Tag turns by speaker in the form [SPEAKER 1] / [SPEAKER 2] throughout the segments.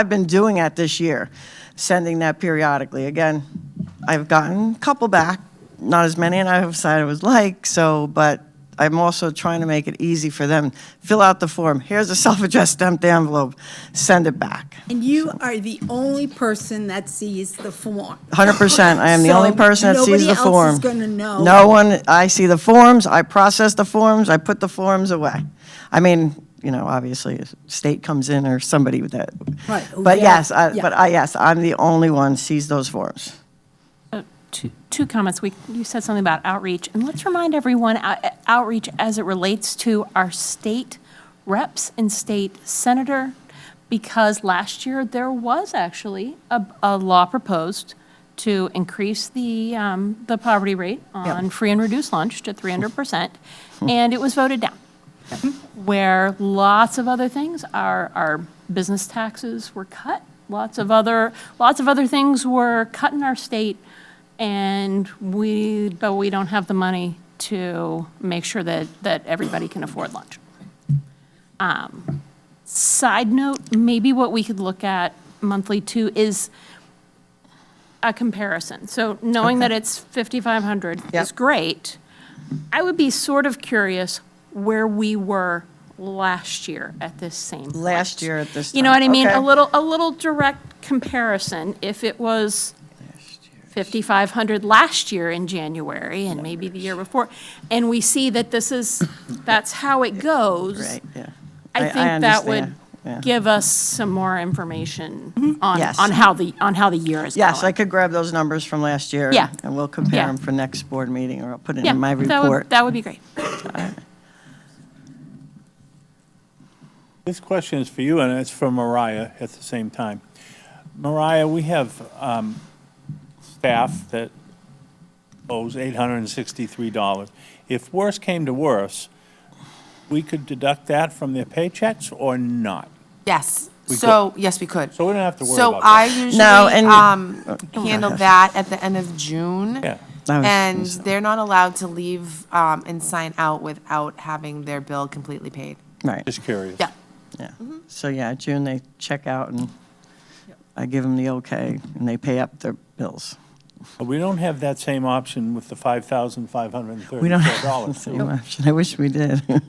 [SPEAKER 1] I've been doing that this year, sending that periodically. Again, I've gotten a couple back, not as many, and I have decided I was like, so, but I'm also trying to make it easy for them. Fill out the form, here's a self-addressed stamped envelope, send it back.
[SPEAKER 2] And you are the only person that sees the form.
[SPEAKER 1] 100%, I am the only
[SPEAKER 2] So
[SPEAKER 1] person that sees the form.
[SPEAKER 2] Nobody else is going to know.
[SPEAKER 1] No one, I see the forms, I process the forms, I put the forms away. I mean, you know, obviously, if state comes in or somebody with that.
[SPEAKER 2] Right,
[SPEAKER 1] But
[SPEAKER 2] yeah,
[SPEAKER 1] yes, I,
[SPEAKER 2] yeah.
[SPEAKER 1] but I, yes, I'm the only one sees those forms.
[SPEAKER 3] Uh, Two, two comments. We, you said something about outreach, and let's remind everyone, uh, outreach as it relates to our state reps and state senator, because last year there was actually a, a law proposed to increase the, um, the poverty rate on free and reduced lunch to 300%, and it was voted down where lots of other things, our, our business taxes were cut, lots of other, lots of other things were cut in our state, and we, but we don't have the money to make sure that, that everybody can afford lunch. Um, Side note, maybe what we could look at monthly too is a comparison. So knowing that it's 5,500 is
[SPEAKER 1] Yep.
[SPEAKER 3] great. I would be sort of curious where we were last year at this same. point.
[SPEAKER 1] Last year at this
[SPEAKER 3] You know what I
[SPEAKER 1] time,
[SPEAKER 3] mean?
[SPEAKER 1] okay.
[SPEAKER 3] A little, a little direct comparison, if it was 5,500 last year in January and maybe the year before, and we see that this is, that's how it goes.
[SPEAKER 1] Right, yeah.
[SPEAKER 3] I think that would
[SPEAKER 1] understand, yeah. Mm-hmm.
[SPEAKER 3] give us some more information on,
[SPEAKER 1] Yes.
[SPEAKER 3] on how the, on how the year is going.
[SPEAKER 1] Yes, I could grab those numbers from last year.
[SPEAKER 3] Yeah.
[SPEAKER 1] And we'll compare
[SPEAKER 3] Yeah.
[SPEAKER 1] them for next board meeting, or I'll put it
[SPEAKER 3] Yeah,
[SPEAKER 1] in my
[SPEAKER 3] that would-
[SPEAKER 1] report.
[SPEAKER 3] That would be great.
[SPEAKER 4] This question is for you, and it's for Mariah at the same time. Mariah, we have um, staff that owes $863. If worse came to worse, we could deduct that from their paychecks or not?
[SPEAKER 5] Yes,
[SPEAKER 4] We
[SPEAKER 5] so, yes, we could.
[SPEAKER 4] So we don't have to worry
[SPEAKER 5] So
[SPEAKER 4] about
[SPEAKER 5] I
[SPEAKER 4] that.
[SPEAKER 5] usually,
[SPEAKER 1] No, and- Oh,
[SPEAKER 5] um, handle that at the end of June.
[SPEAKER 4] Yeah.
[SPEAKER 1] I was
[SPEAKER 5] And
[SPEAKER 1] gonna say.
[SPEAKER 5] they're not allowed to leave, um, and sign out without having their bill completely paid.
[SPEAKER 1] Right,
[SPEAKER 4] Just curious.
[SPEAKER 5] Yeah.
[SPEAKER 1] yeah. So, yeah, June, they check out, and I give them the okay, and they pay up their bills.
[SPEAKER 4] But we don't have that same option with the $5,534.
[SPEAKER 1] We don't have the same option. I wish we did.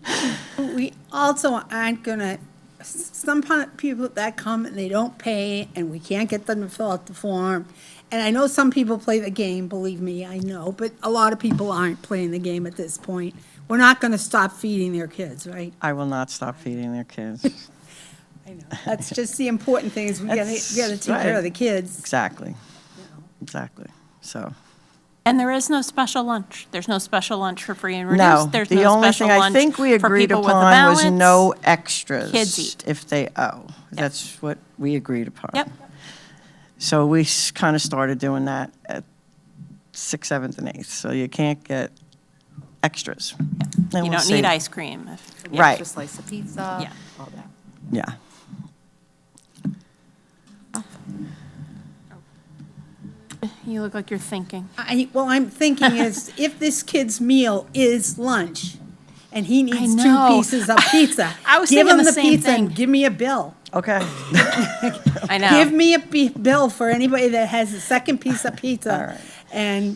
[SPEAKER 2] We also aren't going to, some pun- people that come and they don't pay, and we can't get them to fill out the form. And I know some people play the game, believe me, I know, but a lot of people aren't playing the game at this point. We're not going to stop feeding their kids, right?
[SPEAKER 1] I will not stop feeding their kids.
[SPEAKER 2] I know. That's just the important thing, is we got
[SPEAKER 1] That's
[SPEAKER 2] to, we got to take care
[SPEAKER 1] right.
[SPEAKER 2] of the kids.
[SPEAKER 1] Exactly. Exactly. So,
[SPEAKER 3] And there is no special lunch. There's no special lunch for free and
[SPEAKER 1] no,
[SPEAKER 3] reduced. There's
[SPEAKER 1] the
[SPEAKER 3] no
[SPEAKER 1] only
[SPEAKER 3] special
[SPEAKER 1] thing I
[SPEAKER 3] lunch
[SPEAKER 1] think we
[SPEAKER 3] for
[SPEAKER 1] agreed
[SPEAKER 3] people with a
[SPEAKER 1] upon was
[SPEAKER 3] balance.
[SPEAKER 1] no extras.
[SPEAKER 3] Kids eat.
[SPEAKER 1] If they owe. That's what we agreed upon.
[SPEAKER 3] Yep.
[SPEAKER 1] So we kind of started doing that at sixth, seventh, and eighth. So you can't get extras.
[SPEAKER 3] You don't need ice cream. if-
[SPEAKER 5] Yeah,
[SPEAKER 1] Right.
[SPEAKER 5] Extra slice of pizza,
[SPEAKER 3] Yeah.
[SPEAKER 5] all that.
[SPEAKER 1] Yeah.
[SPEAKER 3] You look like you're thinking.
[SPEAKER 2] I, well, I'm thinking is, if this kid's meal is lunch, and he needs two
[SPEAKER 3] know.
[SPEAKER 2] pieces of pizza.
[SPEAKER 3] I was
[SPEAKER 2] give
[SPEAKER 3] thinking
[SPEAKER 2] him
[SPEAKER 3] the same
[SPEAKER 2] pizza and
[SPEAKER 3] thing.
[SPEAKER 2] Give me a bill.
[SPEAKER 1] Okay.
[SPEAKER 3] I know.
[SPEAKER 2] Give me a bi- bill for anybody that has a second piece of
[SPEAKER 1] All
[SPEAKER 2] pizza
[SPEAKER 1] right.
[SPEAKER 2] and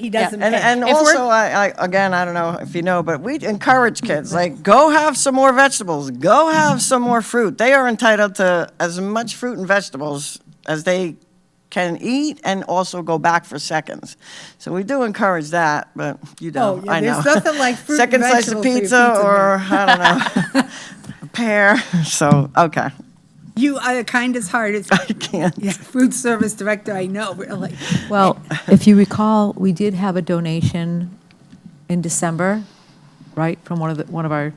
[SPEAKER 2] he
[SPEAKER 3] Yeah.
[SPEAKER 2] doesn't
[SPEAKER 1] And, and
[SPEAKER 2] pay.
[SPEAKER 3] If we're-
[SPEAKER 1] also, I, I, again, I don't know if you know, but we encourage kids,
[SPEAKER 2] Mm-hmm.
[SPEAKER 1] like, go have some more vegetables, go have some more fruit. They are entitled to as much fruit and vegetables as they can eat and also go back for seconds. So we do encourage that, but you
[SPEAKER 2] Oh,
[SPEAKER 1] don't,
[SPEAKER 2] yeah,
[SPEAKER 1] I know.
[SPEAKER 2] there's nothing like fruit and
[SPEAKER 1] Second slice of
[SPEAKER 2] vegetable for your
[SPEAKER 1] pizza
[SPEAKER 2] pizza,
[SPEAKER 1] or, I don't know, a pear, so, okay,
[SPEAKER 2] You are the kindest hearted
[SPEAKER 1] I can't.
[SPEAKER 2] yeah, food service director I know, really.
[SPEAKER 6] Well, if you recall, we did have a donation in December, right, from one of the, one of our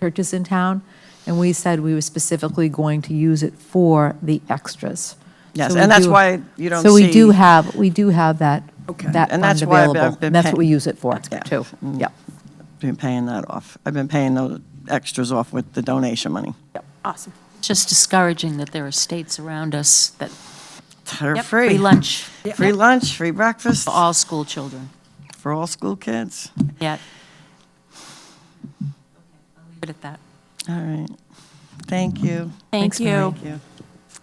[SPEAKER 6] churches in town, and we said we were specifically going to use it for the extras.
[SPEAKER 1] Yes,
[SPEAKER 6] So we
[SPEAKER 1] and that's
[SPEAKER 6] do-
[SPEAKER 1] why you don't
[SPEAKER 6] So we do
[SPEAKER 1] see-
[SPEAKER 6] have, we do have that,
[SPEAKER 2] Okay.
[SPEAKER 6] that
[SPEAKER 1] And
[SPEAKER 6] fund
[SPEAKER 1] that's why I've
[SPEAKER 6] available.
[SPEAKER 1] been
[SPEAKER 6] and That's what we
[SPEAKER 1] paying- Mm.
[SPEAKER 6] use it for,
[SPEAKER 1] Yeah.
[SPEAKER 6] too. Yep.
[SPEAKER 1] Been paying that off. I've been paying those extras off with the donation money.
[SPEAKER 3] Awesome.
[SPEAKER 7] just discouraging that there are states around us that
[SPEAKER 1] They're
[SPEAKER 3] Yep,
[SPEAKER 1] free.
[SPEAKER 7] free lunch
[SPEAKER 1] Free lunch, free breakfast
[SPEAKER 7] for all school children.
[SPEAKER 1] for all school kids.
[SPEAKER 7] Yeah. I'll leave it at that.
[SPEAKER 1] All right. Thank you.
[SPEAKER 3] Thank you.
[SPEAKER 1] Thank you.